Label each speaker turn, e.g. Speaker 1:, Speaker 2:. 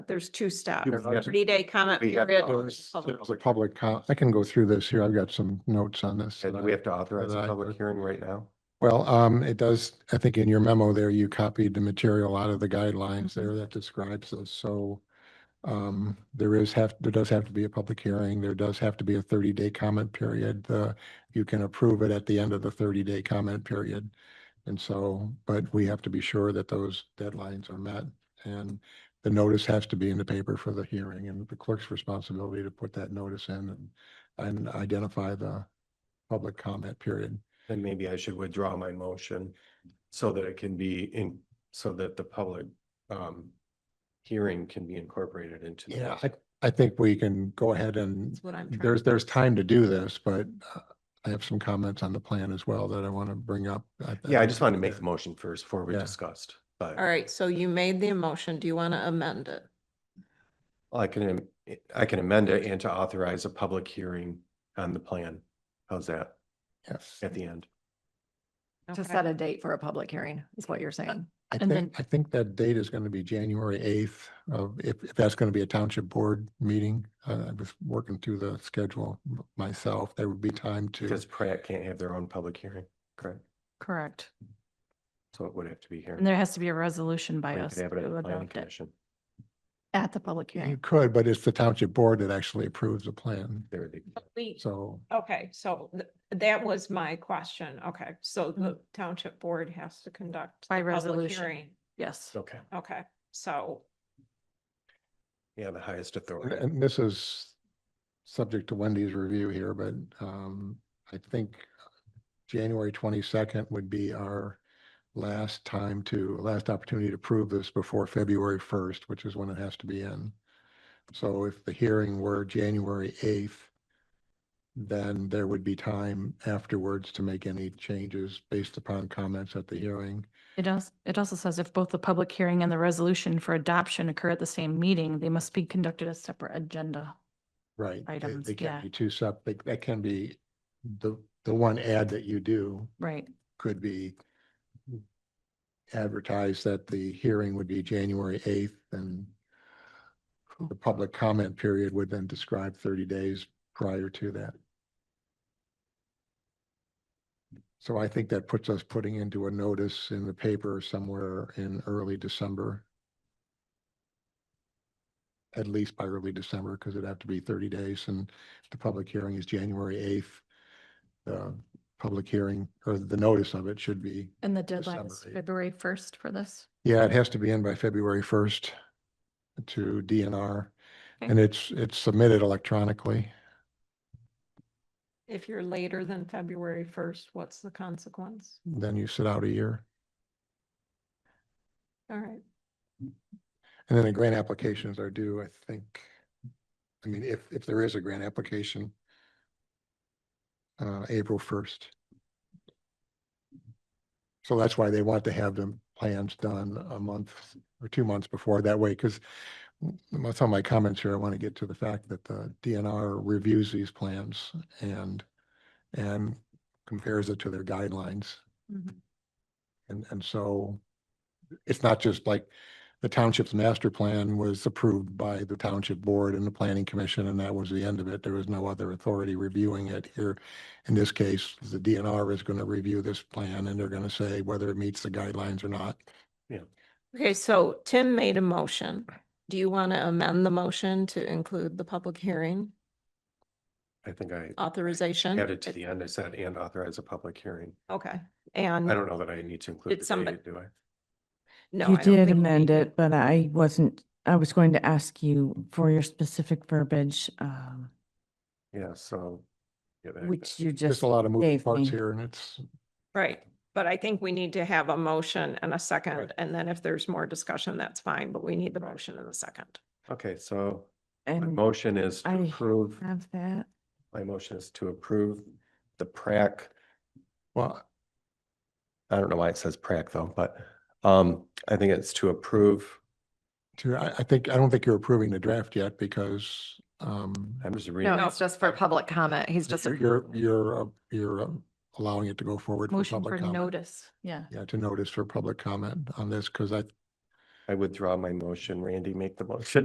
Speaker 1: there's two steps.
Speaker 2: There's
Speaker 3: Yes.
Speaker 1: Thirty day comment
Speaker 2: We have
Speaker 1: period.
Speaker 2: those.
Speaker 1: public-
Speaker 3: There's a public, co- I can go through this here. I've got some notes on this.
Speaker 2: And
Speaker 3: that
Speaker 2: we
Speaker 3: I-
Speaker 2: have to authorize a
Speaker 3: that I-
Speaker 2: public hearing right now.
Speaker 3: Well, um, it does, I think in your memo there, you copied the material out of the guidelines there that describes this, so. Um, there is have, there does have to be a public hearing, there does have to be a thirty day comment period, uh, you can approve it at the end of the thirty day comment period. And so, but we have to be sure that those deadlines are met and the notice has to be in the paper for the hearing and the clerk's responsibility to put that notice in and. And identify the public comment period.
Speaker 2: Then maybe I should withdraw my motion so that it can be in, so that the public um hearing can be incorporated into. the
Speaker 3: Yeah,
Speaker 2: motion.
Speaker 3: I, I think we can go ahead and
Speaker 1: That's what I'm. trying-
Speaker 3: there's, there's time to do this, but uh, I have some comments on the plan as well that I want to bring up.
Speaker 2: Yeah, I just wanted to make the motion first before we
Speaker 3: Yeah.
Speaker 2: discussed, but
Speaker 1: All right, so you made the motion. Do you want to amend it?
Speaker 2: I can, am- I can amend it and to authorize a public hearing on the plan. How's that
Speaker 3: Yes,
Speaker 2: at the end?
Speaker 4: To
Speaker 1: Okay.
Speaker 4: set a date for a public hearing is what you're saying.
Speaker 3: I
Speaker 4: and then-
Speaker 3: think, I think that date is going to be January eighth of, if, if that's going to be a township board meeting. Uh, I was working through the schedule m- myself. There would be time to,
Speaker 2: Because Pratt can't have their own public hearing, correct?
Speaker 4: Correct.
Speaker 2: So it would have to be here.
Speaker 4: And there has to be a resolution by
Speaker 2: Or you
Speaker 4: us
Speaker 2: could have it at
Speaker 4: to
Speaker 2: the planning
Speaker 4: adopt it
Speaker 2: commission.
Speaker 4: at the public
Speaker 3: you
Speaker 4: hearing.
Speaker 3: could, but it's the township board that actually approves the plan.
Speaker 2: There they-
Speaker 1: We-
Speaker 3: So
Speaker 1: Okay, so th- that was my question. Okay, so the township board has to conduct.
Speaker 4: By
Speaker 1: the public
Speaker 4: resolution.
Speaker 1: hearing.
Speaker 4: Yes.
Speaker 2: Okay,
Speaker 1: Okay, so,
Speaker 2: yeah, the highest
Speaker 3: And-
Speaker 2: authority.
Speaker 3: And this is subject to Wendy's review here, but um, I think January twenty-second would be our last time to, last opportunity to prove this before February first, which is when it has to be in. So if the hearing were January eighth, then there would be time afterwards to make any changes based upon comments at the hearing.
Speaker 4: It does, it also says if both the public hearing and the resolution for adoption occur at the same meeting, they must be conducted as separate agenda.
Speaker 3: Right. they-
Speaker 4: Items,
Speaker 3: They
Speaker 4: yeah.
Speaker 3: can be two sep, they- that can be the, the one ad that you do
Speaker 4: Right.
Speaker 3: could be advertised that the hearing would be January eighth and the public comment period would then describe thirty days prior to that. So I think that puts us putting into a notice in the paper somewhere in early December. At least by early December, because it'd have to be thirty days and the public hearing is January eighth. Um, The public hearing or the notice of it should be,
Speaker 4: And the deadline is
Speaker 3: December eighth.
Speaker 4: February first for this.
Speaker 3: yeah, it has to be in by February first to DNR.
Speaker 4: Okay.
Speaker 3: And it's, it's submitted electronically.
Speaker 1: if you're later than February first, what's the consequence?
Speaker 3: Then you sit out a year.
Speaker 1: All right,
Speaker 3: And then the grant applications are due, I think. I mean, if, if there is a grant application, uh, April first. So that's why they want to have the plans done a month or two months before that way, because some of my comments here, I want to get to the fact that the DNR reviews these plans and, and compares it to their guidelines.
Speaker 1: Mhm.
Speaker 3: And, and so it's not just like the township's master plan was approved by the township board and the planning commission, and that was the end of it. There was no other authority reviewing it here. In this case, the DNR is going to review this plan and they're going to say whether it meets the guidelines or not.
Speaker 1: okay, so Tim made a motion. Do you want to amend the motion to include the public hearing
Speaker 2: I think I
Speaker 1: authorization?
Speaker 2: added to the end. I said and authorize a public hearing.
Speaker 1: Okay,
Speaker 2: I
Speaker 1: and
Speaker 2: don't know that I need to
Speaker 1: Did
Speaker 2: include the
Speaker 1: somebody-
Speaker 2: date, do I?
Speaker 1: no.
Speaker 5: You
Speaker 1: I don't think
Speaker 5: did
Speaker 1: we
Speaker 5: amend
Speaker 1: need-
Speaker 5: it, but I wasn't, I was going to ask you for your specific verbiage, um,
Speaker 2: Yeah, so. yeah, that-
Speaker 5: which you
Speaker 3: There's
Speaker 5: just
Speaker 3: a lot of moving
Speaker 5: gave
Speaker 3: parts
Speaker 5: me.
Speaker 3: here and it's,
Speaker 1: Right, but I think we need to have a motion and a second, and then if there's more discussion, that's fine, but we need the motion and the second.
Speaker 2: Okay, so my
Speaker 5: And
Speaker 2: motion is to
Speaker 5: I-
Speaker 2: approve,
Speaker 5: have that.
Speaker 2: my motion is to approve the PrAC.
Speaker 3: well,
Speaker 2: I don't know why it says PrAC though, but um, I think it's to approve.
Speaker 3: to, I, I think, I don't think you're approving the draft yet because, um,
Speaker 2: I'm just reading.
Speaker 4: No, it's just for public comment. He's just.
Speaker 3: you're, you're, you're, uh, you're um, allowing it to go forward. for
Speaker 4: Motion
Speaker 3: public
Speaker 4: for
Speaker 3: comment.
Speaker 4: notice. Yeah.
Speaker 3: Yeah, to notice for public comment on this, because I
Speaker 2: I withdraw my motion. Randy, make the motion.